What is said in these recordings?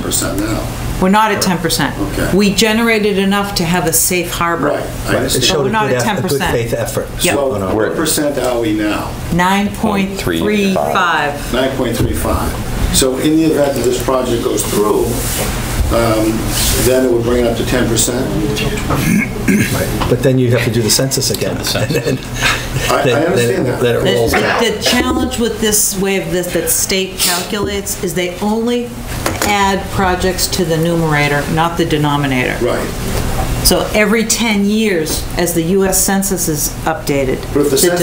percent now. We're not at ten percent. Okay. We generated enough to have a safe harbor. Right. I Right, It understand. showed we're a not good at eff- a good 10%. faith effort. Yep. on our So what percent are we now? Nine point three five. 9.35. So in the event that this project goes through, um, then it would bring it up to 10%? part. But then you have to do the census again. And then- I I then- then- understand that. Then it rolls out. The challenge with this way of this, that state calculates, is they only add projects to the numerator, not the denominator. Right. So every 10 years, as the US Census is updated, But if the the census is stable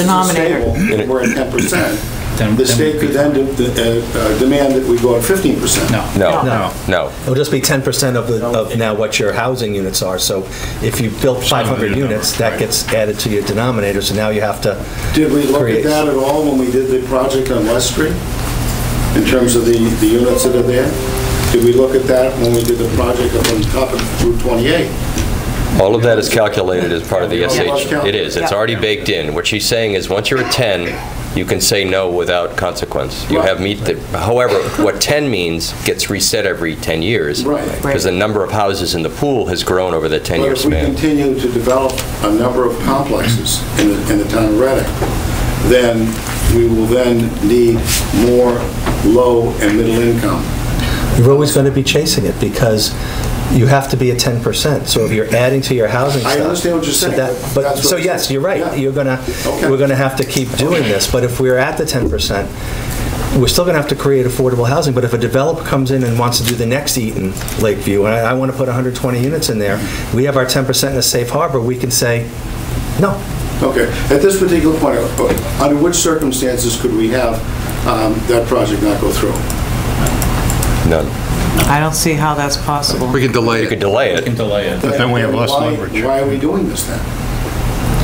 denominator. and we're at 10%, Then- the then state we'd could be then de- uh, uh, demand that we go at 15%. No. No. No, No. no. It'll just be 10% of the, of now what your housing units are. So if you built 500 units, that gets added to your denominator, so now you have to Did we look at create. that at all when we did the project on West Street? In terms of the, the units that are there? Did we look at that when we did the project up on top of Route 28? All of that is calculated as part of the SH. It is, it's Yeah. already baked in. What she's saying is, once you're at 10, you can say no without consequence. You have meet the, however, what 10 means gets reset every 10 years. Right. Because the number of houses in the pool has grown over the 10-year But if we span. continue to develop a number of complexes in the, in the town of Reading, then we will then need more low and middle income. You're always going to be chasing it because you have to be at 10%. So if you're adding to your housing I stock. understand what you're so saying, that- but But, that's what so I'm yes, saying. you're Yeah. right. You're going to, Okay. we're going to have to keep doing this. But if we're at the 10%, we're still going to have to create affordable housing. But if a developer comes in and wants to do the next Eaton Lakeview, and I want to put 120 units in there, we have our 10% in a safe harbor, we can say, no. Okay, at this particular point, uh, under which circumstances could we have um, that project not go through? None. I don't see how that's possible. We can delay You could it. delay You can it. delay it. But then we have less Why- leverage. Why are we doing this then?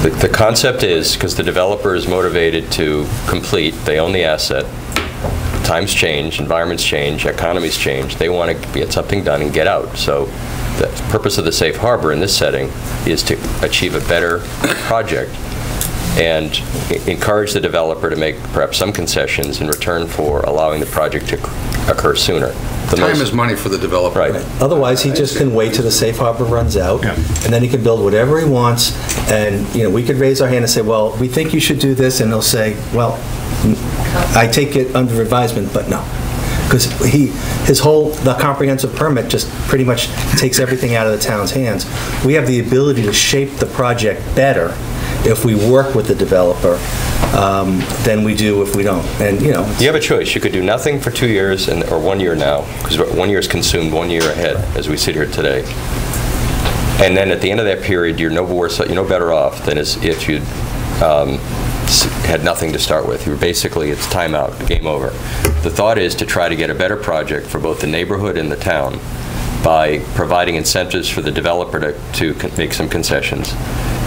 The- The concept is, because the developer is motivated to complete, they own the asset, times change, environments change, economies change, they want to get something done and get out. So the purpose of the safe harbor in this setting is to achieve a better project and e- encourage the developer to make perhaps some concessions in return for allowing the project to c- occur sooner. The Time most- is money for the developer. Right. Otherwise, he just can wait till the safe harbor runs out, Yeah. and then he can build whatever he wants, and, you know, we could raise our hand and say, well, we think you should do this, and they'll say, well, n- I take it under advisement, but no. Because he, his whole, the comprehensive permit just pretty much takes everything out of the town's hands. We have the ability to shape the project better if we work with the developer um, than we do if we don't, and, you know. it's- You have a choice. You could do nothing for two years and, or one year now, because one year is consumed one year ahead as we sit here today. And then at the end of that period, you're no worse, you're no better off than as if you had nothing to start with. You're basically, it's timeout, game over. The thought is to try to get a better project for both the neighborhood and the town by providing incentives for the developer to, to con- make some concessions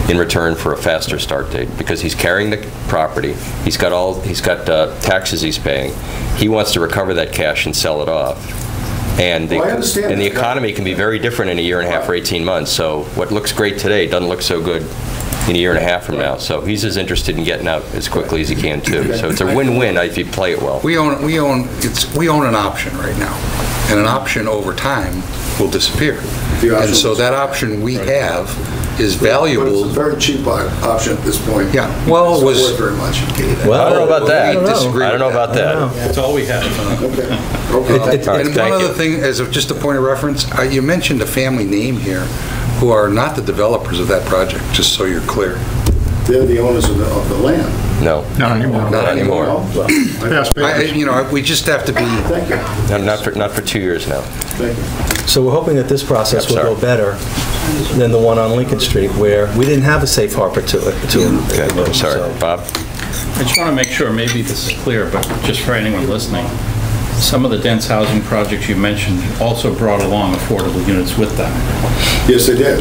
in return for a faster start date, because he's carrying the property, he's got all, he's got uh, taxes he's paying, he wants to recover that cash and sell it off. And the, Well, I understand and the that. economy can be very different in a year and a half or 18 months, so what looks great today doesn't look so good in a year and a half from now. So he's as interested in getting out as quickly as he can, too. So it's a win-win if you play it well. We own, we own, it's, we own an option right now, and an option over time will disappear. The option- And so that option we have But it's is a valuable. very cheap o- option at this point. Yeah, well, it It's not was- worth very much. I don't know about that. We disagree I don't know with that. about that. That's all we have. Okay. Okay. It- it- All right, And one thank other you. thing, as of just a point of reference, uh, you mentioned a family name here who are not the developers of that project, just so you're clear. They're the owners of the, of the land. No, Not anymore. not anymore. Well, I- You know, we just have to be Thank you, No, Not for, not for two years now. thank you. So we're hoping that this process Yep, will go sorry. better than the one on Lincoln Street, where we didn't have a safe harbor to it. to it. Okay, I'm sorry. So- Bob? I just want to make sure, maybe this is clear, but just for anyone listening, some of the dense housing projects you mentioned also brought along affordable units with them. Um, Yes, they did,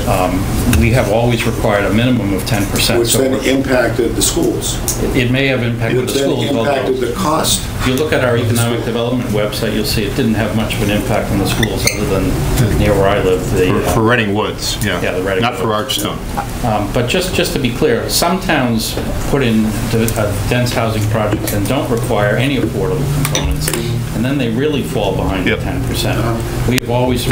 We have always required a minimum of 10%. which so then we're- impacted the schools, It may have impacted which the then schools, although impacted the cost. if you look at our economic development website, you'll see it didn't have much of an impact on the schools other than near where I live. the, For- uh, For Reading Woods, yeah. Yeah, the Reading Not for Woods. Archstone. Um, But just, just to be clear, some towns put in d- uh, dense housing projects and don't require any affordable components. and then they really fall behind the Yep. 10%. We've always